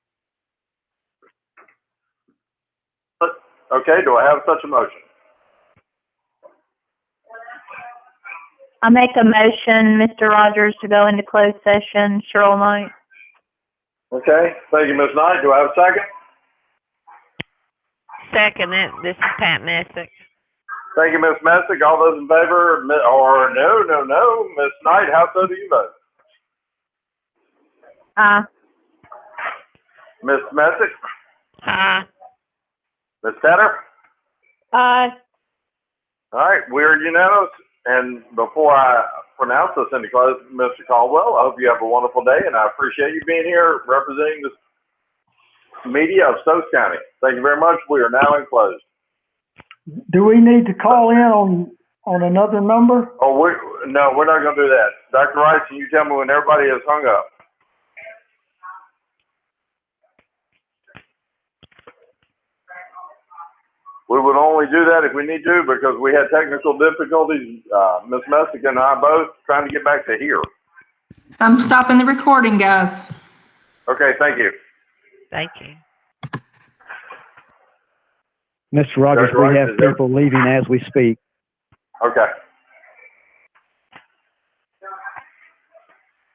Okay, do I have such a motion? I make a motion, Mr. Rogers, to go into closed session. Cheryl Knight. Okay, thank you, Ms. Knight. Do I have a second? Second it, this is Pat Messick. Thank you, Ms. Messick. All those in favor, mi- or no, no, no, Ms. Knight, how so do you vote? Aye. Ms. Messick, Aye. Ms. Tedder? Aye. All right, we're unanimous. And before I pronounce this into close, Mr. Caldwell, I hope you have a wonderful day, and I appreciate you being here representing the media of Stokes County. Thank you very much. We are now in closed. Do we need to call in on, on another number? Oh, we no, we're not going to do that. Dr. Rice, can you tell me when everybody has hung up? We would only do that if we need to because we had technical difficulties, uh, Ms. Messick and I both, trying to get back to here. I'm stopping the recording, guys. Okay, thank you. Thank you. Mr. Rogers, Dr. we Rogers, have is there- people leaving as we speak. Okay.